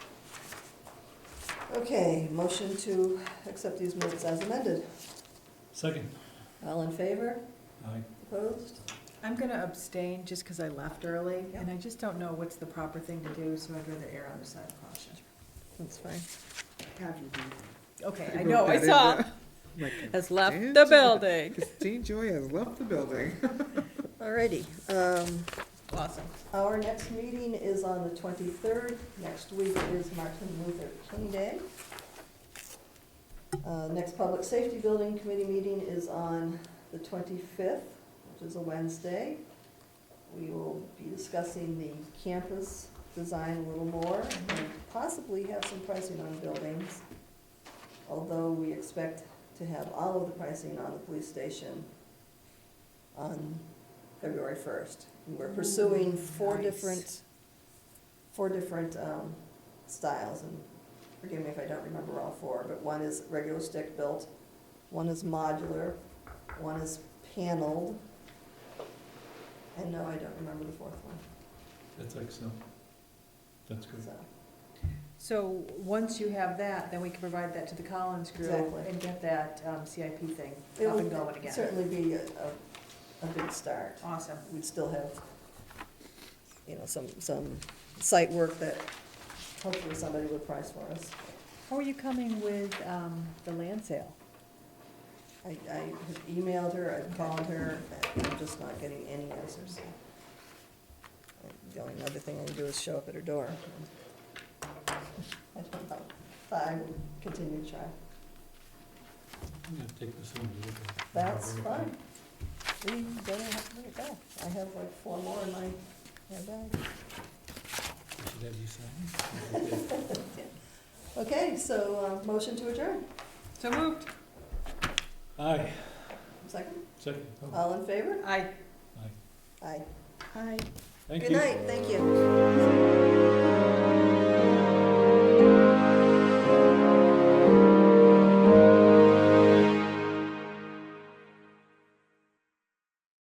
Okay, motion to accept these minutes as amended. Second. All in favor? Aye. Opposed? I'm going to abstain just because I left early, Yeah. and I just don't know what's the proper thing to do, so I'd rather err on the side of caution. That's fine. Have you do. Okay, I I wrote know, I that in saw, there. Like, has left Damn. the building. Christine Joy has left the building. Alrighty, um, Awesome. our next meeting is on the twenty-third. Next week is Martin Luther King Day. Uh, next Public Safety Building Committee meeting is on the twenty-fifth, which is a Wednesday. We will be discussing the campus design a little more and possibly have some pricing on buildings. Although we expect to have all of the pricing on the police station on February first. We're pursuing four Nice. different, four different, um, styles and forgive me if I don't remember all four, but one is regular stick built, one is modular, one is paneled. And no, I don't remember the fourth one, That's excellent. That's good. so. So, once you have that, then we can provide that to the Collins Group Exactly. and get that um, CIP thing It up would and going again. certainly be a, a, a big start. Awesome. We'd still have, you know, some, some site work that hopefully somebody would price for us. How are you coming with um, the land sale? I, I have emailed her, I've called her, and I'm just not getting any answers. The only other thing I can do is show up at her door. I don't know, but I will continue to try. I'm gonna take this home. and look at it. That's fine. We don't have to let it go. I have like four more in my, my bag. I Should have you sign. it. Okay, so, uh, motion to adjourn. So moved. Aye, Second, second. Oh, Uh, all in favor? Aye. Aye. Aye. Aye. Thank Good you. night, thank you.